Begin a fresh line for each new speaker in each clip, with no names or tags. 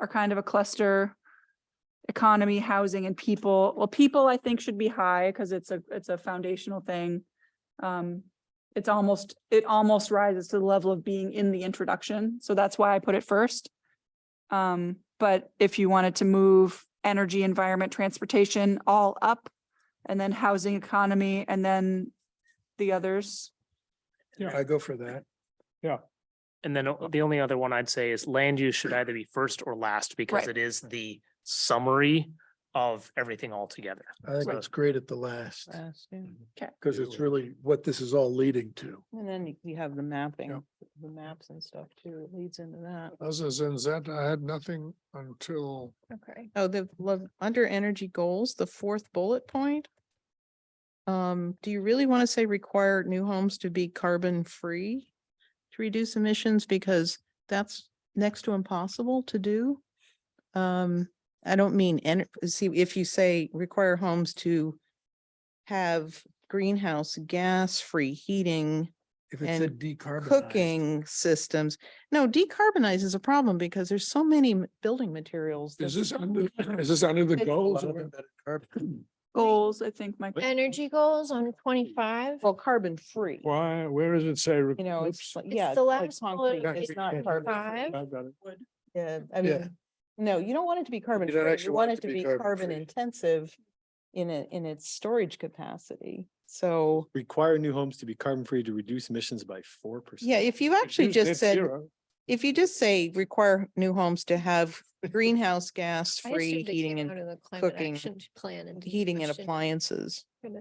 are kind of a cluster. Economy, housing and people. Well, people I think should be high because it's a, it's a foundational thing. Um, it's almost, it almost rises to the level of being in the introduction. So that's why I put it first. Um, but if you wanted to move energy, environment, transportation all up and then housing economy and then the others.
I go for that.
And then o- the only other one I'd say is land use should either be first or last because
Right.
it is the summary of everything altogether.
I think
So-
it's great at the last,
Last, yeah.
because it's really what this is all leading to.
And then you- you have the
Yeah.
mapping, the maps and stuff too, it leads into that.
Other than that, I had nothing until.
Okay. Oh, the, lo- under energy goals, the fourth bullet point. Um, do you really want to say require new homes to be carbon free? To reduce emissions because that's next to impossible to do. Um, I don't mean, and see, if you say require homes to. Have greenhouse gas free heating.
If
it said And
decarbonized.
cooking systems. No, decarbonize is a problem because there's so many m- building materials. that-
under, is this under the
It's-
goals?
Goals, I think, Mike.
Energy goals on twenty-five.
Well, carbon free, you
Why, where does it say?
know, it's, like-
It's
yeah.
the
it's like
last bullet,
concrete,
it's
It's not carbon.
Five.
Yeah,
Yeah.
I mean, no, you don't want it to be carbon
don't
free.
actually
You want it to be carbon
carbon-free.
intensive in it, in its storage capacity. So,
require new homes to be carbon free to reduce emissions by four percent.
yeah, if you actually just said, if you just say require new homes to have greenhouse gas
I assumed
free
it
heating and
came out of the climate
cooking,
action Plan and.
heating and
question.
appliances,
Yep.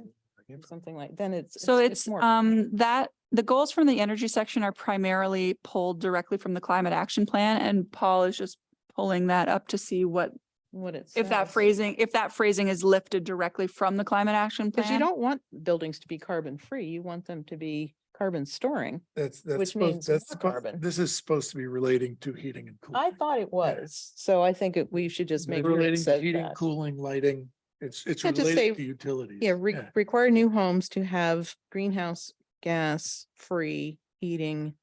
or something like, then it's.
So it's,
more-
um, that, the goals from the energy section are primarily pulled directly from the climate action plan and Paul is just pulling that up to see what,
What it's.
if that phrasing, if that phrasing is lifted directly from the climate action
Because
plan.
you don't want buildings to be carbon free. You want them to be carbon storing.
That's, that's
Which
supposed,
means
that's,
more
supposed-
carbon.
this is supposed to be relating to heating and cooling.
I thought it was. So I think it- we should just make sure it
Relating to
says
heating,
that.
cooling, lighting. It's, it's
Yeah, just say-
related to utilities.
Yeah, re- require new homes to have greenhouse gas free heating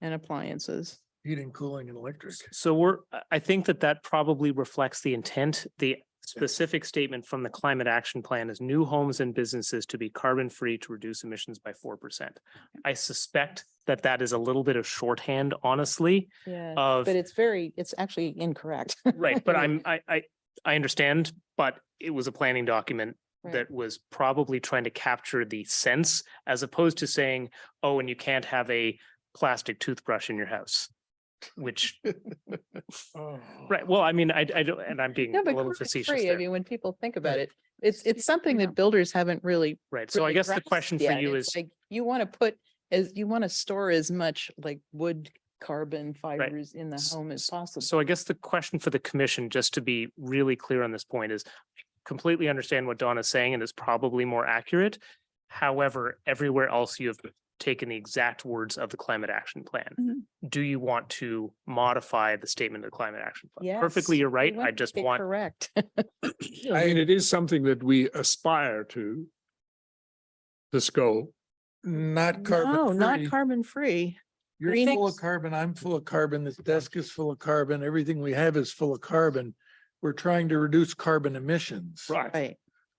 and appliances.
Heating, cooling and electric.
So we're, I- I think that that probably reflects the intent. The specific statement from the climate action plan is new homes and businesses to be carbon free to reduce emissions by four percent. I suspect that that is a little bit of shorthand, honestly,
Yeah.
of.
But it's very, it's actually incorrect.
Right, but I'm, I, I, I understand, but it was a planning document
Right.
that was probably trying to capture the sense as opposed to saying, oh, and you can't have a plastic toothbrush in your house. Which, right, well, I mean, I, I don't, and I'm being a
No, but
little
carbon
facetious
free, I
there.
mean, when people think about it, it's, it's something that builders haven't really
Right, so I
really
guess the
grasped
question for
yet.
you
It's
is,
Like, you want to put, as, you want to store as much like wood, carbon fibers in the
S-
home as possible.
so I guess the question for the commission, just to be really clear on this point is completely understand what Donna's saying and is probably more accurate. However, everywhere else you have taken the exact words of the climate action plan.
Mhm.
Mm-hmm.
Do you want to modify the statement of the climate action plan? Perfectly,
Yes,
you're right.
you
I
to
just
get
want,
Correct.
I mean, it is something that we aspire to. This goal.
Not carbon.
No, not
free.
carbon free.
You're
Green-
full of carbon, I'm full of carbon, this desk is full of carbon, everything we have is full of carbon. We're trying to reduce carbon emissions.
Right.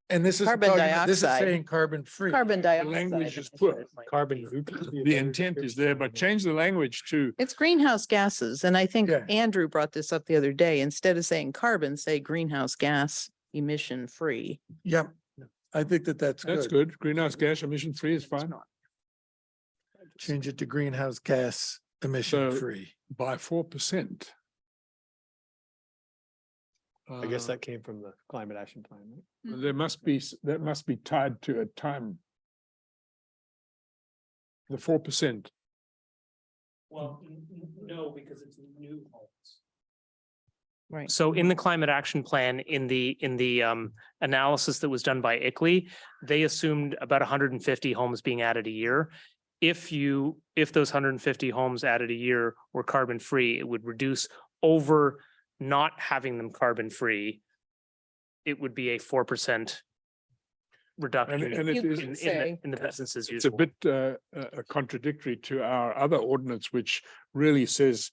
And this is.
Carbon
This is
dioxide.
saying carbon free.
Carbon
The
dioxide.
language is
I
put,
should say.
Carbon.
the intent is there, but change the language to
It's greenhouse gases. And I think
Yeah.
Andrew brought this up the other day. Instead of saying carbon, say greenhouse gas emission free.
Yep, I think that that's
That's
good.
good. Greenhouse gas emission free is fine
Change it to greenhouse gas emission
So-
free.
by four percent.
I guess
Uh,
that came from the climate action plan. right?
Mm.
There must be, s- that must be tied to a time. The four percent.
Well, no, because it's new homes.
Right.
So in the climate action plan, in the, in the um analysis that was done by ICLEI, they assumed about hundred and fifty homes being added a year. If you, if those hundred and fifty homes added a year were carbon free, it would reduce over not having them carbon free. It would be a four percent reduction in,
and it
You
is-
could
in the,
say,
in the businesses
It's a
usual.
bit uh, uh, contradictory to our other ordinance, which really says